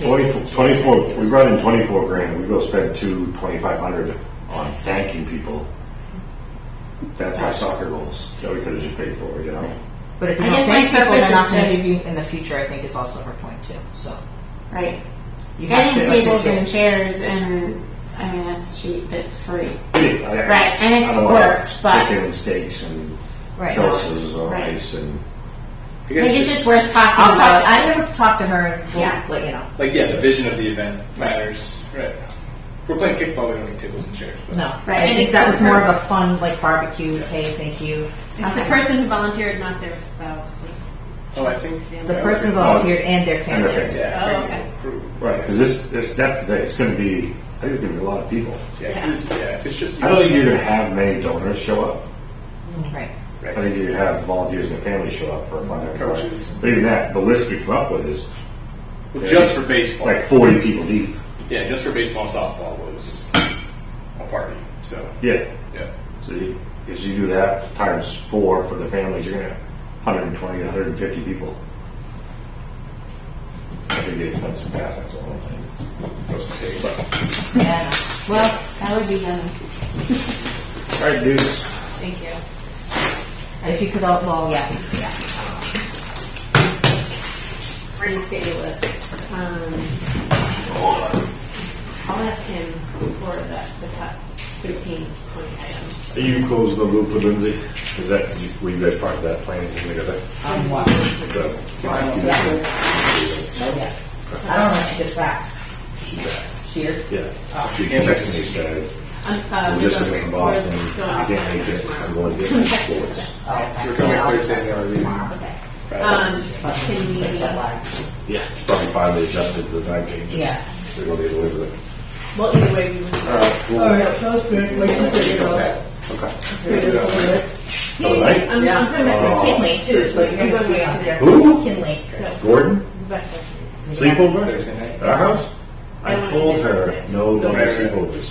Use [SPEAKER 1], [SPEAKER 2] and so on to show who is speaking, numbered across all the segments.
[SPEAKER 1] Twenty-four, twenty-four, we brought in twenty-four grand, we go spend two, twenty-five hundred on thanking people. That's our soccer goals, that we could've just paid for, you know?
[SPEAKER 2] But if you
[SPEAKER 3] I
[SPEAKER 2] don't
[SPEAKER 3] guess my
[SPEAKER 2] thank people, they're
[SPEAKER 3] purpose
[SPEAKER 2] not
[SPEAKER 3] is
[SPEAKER 2] going to
[SPEAKER 3] to-
[SPEAKER 2] give you in the future. I think is also her point too. So
[SPEAKER 3] Right.
[SPEAKER 2] you have
[SPEAKER 3] Getting
[SPEAKER 2] to, like you
[SPEAKER 3] tables
[SPEAKER 2] said-
[SPEAKER 3] and chairs and, I mean, that's cheap, that's free.
[SPEAKER 1] Right,
[SPEAKER 3] and it's work, but-
[SPEAKER 1] Chicken and steaks and
[SPEAKER 2] Right.
[SPEAKER 1] seltzers on
[SPEAKER 3] Right.
[SPEAKER 1] ice and.
[SPEAKER 4] I
[SPEAKER 3] I
[SPEAKER 4] guess
[SPEAKER 3] think it's
[SPEAKER 4] just-
[SPEAKER 3] just worth talking
[SPEAKER 2] I'll talk.
[SPEAKER 3] about.
[SPEAKER 2] I never talked to her. And we'll
[SPEAKER 3] Yeah.
[SPEAKER 2] let you know.
[SPEAKER 4] like yeah, the vision of the event matters. Right. If We're playing kickball. We don't need tables and chairs. But.
[SPEAKER 2] No,
[SPEAKER 3] Right.
[SPEAKER 2] I think that was more of a fun like barbecue. Hey, thank you.
[SPEAKER 5] It's the person who volunteered, not their spouse.
[SPEAKER 4] Oh, I think.
[SPEAKER 2] The
[SPEAKER 4] Yeah,
[SPEAKER 2] person
[SPEAKER 4] okay.
[SPEAKER 2] volunteered and their
[SPEAKER 1] and their
[SPEAKER 2] family.
[SPEAKER 1] family.
[SPEAKER 4] Yeah.
[SPEAKER 5] Oh,
[SPEAKER 4] I think
[SPEAKER 5] okay.
[SPEAKER 4] we'll approve.
[SPEAKER 1] Right, cause this, this, that's the thing, it's gonna be, I think it's gonna be a lot of people.
[SPEAKER 4] Yeah. if it's- yeah, If it's just.
[SPEAKER 1] I don't think you're gonna have many donors show up.
[SPEAKER 2] Right.
[SPEAKER 1] I
[SPEAKER 4] Right.
[SPEAKER 1] think you have volunteers and their families show up for a fun
[SPEAKER 4] Coaches.
[SPEAKER 1] But even that, the list we come up with is
[SPEAKER 4] Well, just for baseball.
[SPEAKER 1] like forty people deep.
[SPEAKER 4] Yeah, just for baseball and softball was a party. So
[SPEAKER 1] Yeah.
[SPEAKER 4] yeah.
[SPEAKER 1] So you, if you do that times four for the families, you're gonna have 120, 150 people. That could get expensive fast. That's the whole thing. Goes to pay, but-
[SPEAKER 2] Yeah. Well,
[SPEAKER 3] That would be done.
[SPEAKER 1] All right, dudes.
[SPEAKER 2] thank you. If you could, all, well, yeah, yeah.
[SPEAKER 5] We're going to get you a list. Um, I'll ask him for the, the top 15, 20 items.
[SPEAKER 1] You close the loop with Lindsay. Is that did you, were you guys part of that planning together?
[SPEAKER 2] Um, what?
[SPEAKER 1] The,
[SPEAKER 2] Yeah. I don't know if she gets back. She is.
[SPEAKER 1] yeah.
[SPEAKER 2] Oh.
[SPEAKER 1] She texted me said,
[SPEAKER 5] Um, uh,
[SPEAKER 1] "I'm
[SPEAKER 5] we
[SPEAKER 1] just
[SPEAKER 5] go-
[SPEAKER 1] gonna be in
[SPEAKER 5] we're
[SPEAKER 1] Boston.
[SPEAKER 5] going
[SPEAKER 1] I can't
[SPEAKER 5] offline
[SPEAKER 1] make it.
[SPEAKER 5] tomorrow.
[SPEAKER 1] I'm going to get sports."
[SPEAKER 2] Oh, okay.
[SPEAKER 4] We're coming
[SPEAKER 2] Yeah, I'll
[SPEAKER 4] clear
[SPEAKER 2] just-
[SPEAKER 4] today. Are we?
[SPEAKER 2] Okay.
[SPEAKER 5] Um,
[SPEAKER 2] But
[SPEAKER 5] can we,
[SPEAKER 2] take that line.
[SPEAKER 1] Yeah. Probably finally adjusted to the time change.
[SPEAKER 2] Yeah.
[SPEAKER 1] They're gonna deliver it.
[SPEAKER 5] well, either way, we would.
[SPEAKER 1] Okay.
[SPEAKER 5] Yeah, yeah,
[SPEAKER 1] right.
[SPEAKER 5] I'm, I'm going back
[SPEAKER 1] Oh.
[SPEAKER 5] to Kinley too, so you're going way too there.
[SPEAKER 1] Who?
[SPEAKER 2] Kinley.
[SPEAKER 5] So,
[SPEAKER 1] Gordon?
[SPEAKER 5] but-
[SPEAKER 1] Sleepover?
[SPEAKER 4] Thursday night.
[SPEAKER 1] At our house? I
[SPEAKER 5] I
[SPEAKER 1] told
[SPEAKER 5] wanna
[SPEAKER 1] her
[SPEAKER 5] get-
[SPEAKER 1] no don't
[SPEAKER 4] Don't worry.
[SPEAKER 1] sleepovers.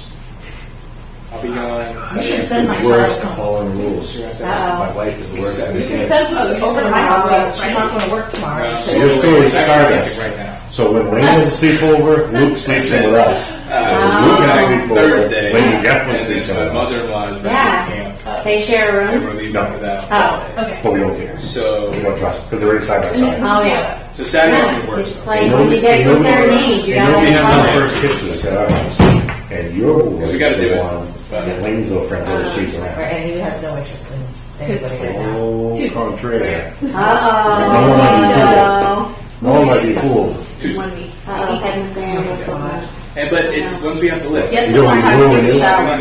[SPEAKER 4] I'll be gone.
[SPEAKER 2] You
[SPEAKER 4] Saturday.
[SPEAKER 2] should send my
[SPEAKER 1] Worst
[SPEAKER 2] child home.
[SPEAKER 1] of following rules.
[SPEAKER 4] You're gonna send us-
[SPEAKER 1] My wife is the worst.
[SPEAKER 2] You can send
[SPEAKER 5] Oh,
[SPEAKER 2] her
[SPEAKER 5] you're
[SPEAKER 2] over to
[SPEAKER 5] sending
[SPEAKER 2] my
[SPEAKER 5] her
[SPEAKER 2] house,
[SPEAKER 5] over,
[SPEAKER 2] but she's not gonna work tomorrow.
[SPEAKER 4] No.
[SPEAKER 2] so-
[SPEAKER 1] Your story
[SPEAKER 4] It's actually
[SPEAKER 1] starts.
[SPEAKER 4] right now.
[SPEAKER 1] So when Lane has a sleepover, Luke sleeps in with us. When Luke has a sleepover,
[SPEAKER 4] Uh, Thursday.
[SPEAKER 1] Lane definitely
[SPEAKER 4] and
[SPEAKER 1] sleeps
[SPEAKER 4] then
[SPEAKER 1] in
[SPEAKER 4] my
[SPEAKER 1] with us.
[SPEAKER 4] mother-in-law's
[SPEAKER 3] Yeah.
[SPEAKER 4] birthday camp.
[SPEAKER 3] They share a
[SPEAKER 4] And
[SPEAKER 3] room?
[SPEAKER 4] we're leaving for that.
[SPEAKER 3] Oh,
[SPEAKER 5] Okay.
[SPEAKER 1] But we don't care.
[SPEAKER 4] So,
[SPEAKER 1] We don't trust, because they're inside by side.
[SPEAKER 3] oh, yeah.
[SPEAKER 4] so Saturday afternoon
[SPEAKER 3] Yeah,
[SPEAKER 4] works.
[SPEAKER 3] it's like when we get to a certain age, you
[SPEAKER 1] They know
[SPEAKER 3] gotta.
[SPEAKER 1] we have
[SPEAKER 3] follow
[SPEAKER 1] some
[SPEAKER 3] it.
[SPEAKER 1] first kisses at our house. And you're always
[SPEAKER 4] We gotta do
[SPEAKER 1] the
[SPEAKER 4] it.
[SPEAKER 1] one, and Lane's little friend always cheats
[SPEAKER 2] Right,
[SPEAKER 1] around.
[SPEAKER 2] And he has no interest in
[SPEAKER 5] His
[SPEAKER 2] anybody
[SPEAKER 5] place.
[SPEAKER 2] else.
[SPEAKER 1] Oh,
[SPEAKER 5] Two.
[SPEAKER 1] contrary. No one might be
[SPEAKER 3] Uh-oh.
[SPEAKER 1] fooled. No one might be fooled.
[SPEAKER 4] Tuesday.
[SPEAKER 5] One week.
[SPEAKER 3] Uh-oh, Kevin Sam, what's up?
[SPEAKER 4] And, but it's, once we have the list.
[SPEAKER 2] Yes,
[SPEAKER 1] You know,
[SPEAKER 2] my
[SPEAKER 1] we
[SPEAKER 2] husband
[SPEAKER 1] ruined
[SPEAKER 2] is
[SPEAKER 1] it.
[SPEAKER 2] out.